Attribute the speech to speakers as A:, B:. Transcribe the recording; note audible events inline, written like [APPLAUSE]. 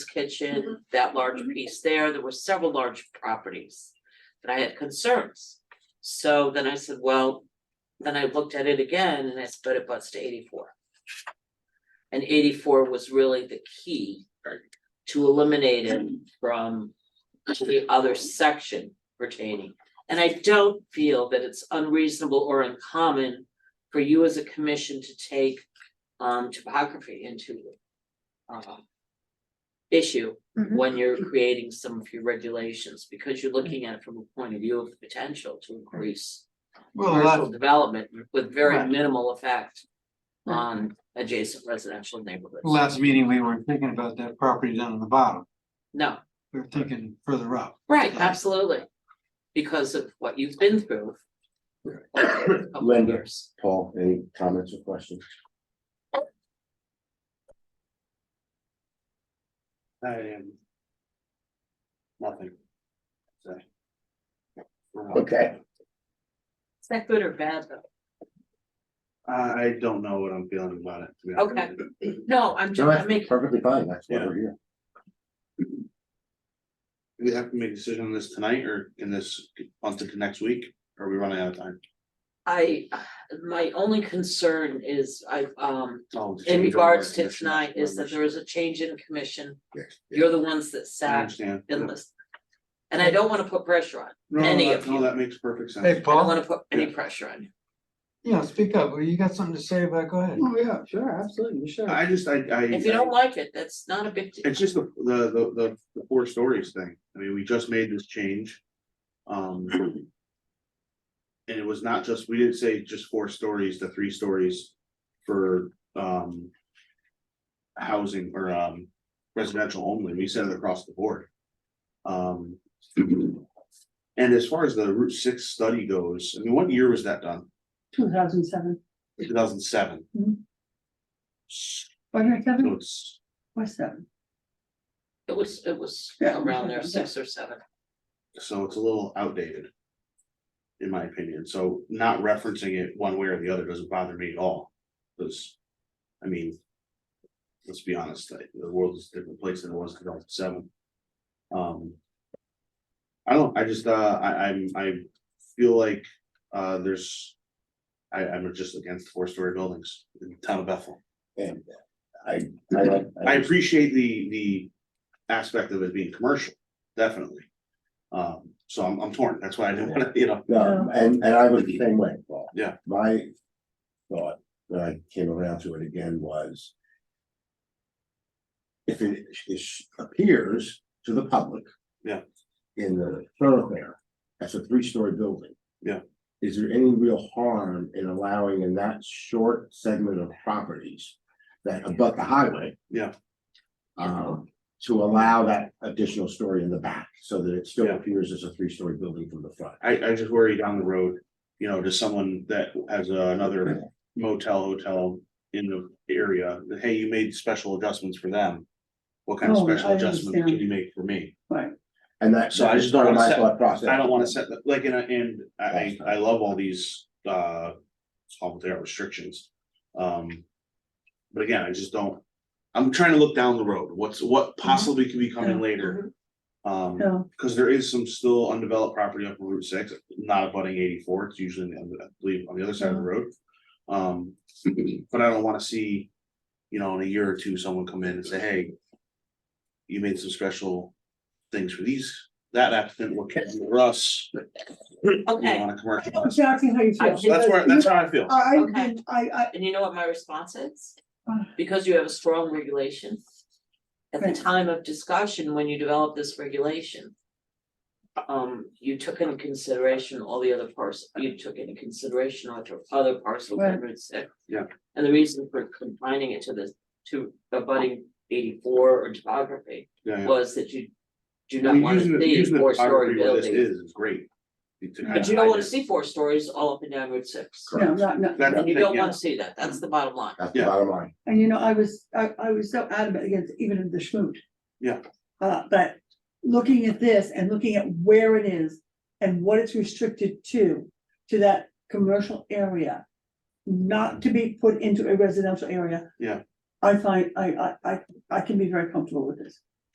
A: kitchen, that large piece there, there were several large properties. And I had concerns. So then I said, well, then I looked at it again and I said, but it butts to eighty-four. And eighty-four was really the key to eliminate it from the other section pertaining. And I don't feel that it's unreasonable or uncommon for you as a commission to take um topography into uh issue
B: Mhm.
A: when you're creating some of your regulations, because you're looking at it from a point of view of the potential to increase
C: Well,
A: commercial
C: that,
A: development with very
C: Right.
A: minimal effect
B: Right.
A: on adjacent residential neighborhoods.
C: last meeting, we were thinking about that property down in the bottom,
A: No,
C: we were thinking further up.
A: right, absolutely, because of what you've been through. over a couple of
D: Linda.
A: years.
D: Paul, any comments or questions?
E: I am. Nothing. to say.
D: Okay.
A: Is that good or bad though?
E: I, I don't know what I'm feeling about it. to be honest
A: Okay.
E: with you.
A: No, I'm
D: No,
A: just, I'm
D: that's
A: making,
D: perfectly fine, that's why we're here.
E: Do we have to make a decision on this tonight or in this, onto the next week? Or Are we running out of time?
A: I, my only concern is I, um,
E: Oh, the
A: in
E: change order
A: regards to
E: commission
A: tonight is that
E: members.
A: there is a change in commission.
D: Yes.
A: You're the ones that
E: I
A: sat
E: understand.
A: in this. And I don't wanna put pressure on,
E: No, no,
A: any
E: that-
A: of
E: no,
A: you.
E: that makes perfect
C: Hey,
E: sense.
A: I don't
C: Paul,
A: wanna put any pressure on you.
C: yeah, speak up, you got something to say about, go ahead.
D: Oh, yeah, sure, absolutely, sure.
E: I just, I, I.
A: If you don't like it, that's not a big deal.
E: It's just the, the, the, the, the four stories thing. I mean, we just made this change. Um. And it was not just, we didn't say just four stories to three stories for, um. Housing or, um, residential only. We said it across the board.
A: [CLEARS THROAT]
E: Um. And as far as the Route Six study goes, I mean, what year was that done?
F: Two thousand seven,
E: Two thousand seven.
F: Mhm.
E: So
F: was it seven
E: it's,
F: or seven?
A: It was, it was
F: Yeah.
A: around there, six or seven.
E: So it's a little outdated. In my opinion, so not referencing it one way or the other doesn't bother me at all, because. I mean. Let's be honest, like, the world is a different place than it was in two thousand seven. Um. I don't, I just, uh, I, I'm, I feel like, uh, there's. I, I'm just against four-story buildings in the town of Bethel.
D: And I, I like.
E: I appreciate the, the aspect of it being commercial, definitely. Um, so I'm, I'm torn, that's why I didn't [LAUGHS] wanna, you know,
D: No, Um, and, and I was the same way, Paul.
E: Yeah.
D: My thought, when I came around to it again, was. If it is- appears to the public.
E: Yeah.
D: In the thoroughfare, that's a three-story building.
E: Yeah.
D: Is there any real harm in allowing in that short segment of properties that abut the highway?
E: Yeah.
D: Um, to allow that additional story in the back, so that it still
E: Yeah.
D: appears as a three-story building from the front.
E: I, I just worry down the road. You know, to someone that has another motel, hotel in the area, that, hey, you made special adjustments for them. What kind of
F: Oh,
E: special
F: I
E: adjustment can
F: understand.
E: you make for me?
F: Right,
D: And that.
E: So I just don't
D: that's
E: wanna
D: my
E: set-
D: thought process.
E: I don't wanna set, the- like, and, I- and I, I love all these, uh, it's called their restrictions. Um, but again, I just don't, I'm trying to look down the road, what's, what possibly could be coming
F: Yeah.
E: later. Um,
F: so,
E: cause there is some still undeveloped property up on Route six, not abutting eighty-four, it's usually, on the- I believe, on the other side of the road. Um, but I don't wanna see, you know, in a year or two, someone come in and say, hey. You made some special things for these, that applicant, what can you, Russ? You know,
A: Okay.
E: On a
F: I
E: commercial.
F: know
E: So
F: exactly how you feel.
A: I-
E: that's where, that's how I feel,
F: I, I,
A: Okay.
F: I, I,
A: And you know what my response is?
F: Uh.
A: Because you have a strong regulation. At the
F: Right.
A: time of discussion, when you developed this regulation. Um, you took into consideration all the other parts, you took into consideration other other parcel
F: Right.
A: amendments. that-
E: Yeah.
A: And the reason for confining it to this, to abutting eighty-four or topography
E: yeah, yeah.
A: was that you. Do
E: I
A: not
E: mean,
A: want
E: using
A: to
E: the-
A: see
E: using the
A: four-story
E: topography where this
A: buildings,
E: Is, is great. To kind
A: but
E: of
A: you don't
E: hide
A: wanna
E: it.
A: see four stories all up and down Route six.
F: no, not, not,
E: That's the
A: You
E: thing,
A: don't
E: yeah.
A: wanna see that, that's the bottom line.
D: That's the
E: Yeah.
D: bottom line.
F: and you know, I was, I, I was so adamant against even in the schmoot.
E: Yeah.
F: Uh, but looking at this and looking at where it is and what it's restricted to, to that commercial area. Not to be put into a residential area.
E: Yeah.
F: I find, I, I, I, I can be very comfortable with this.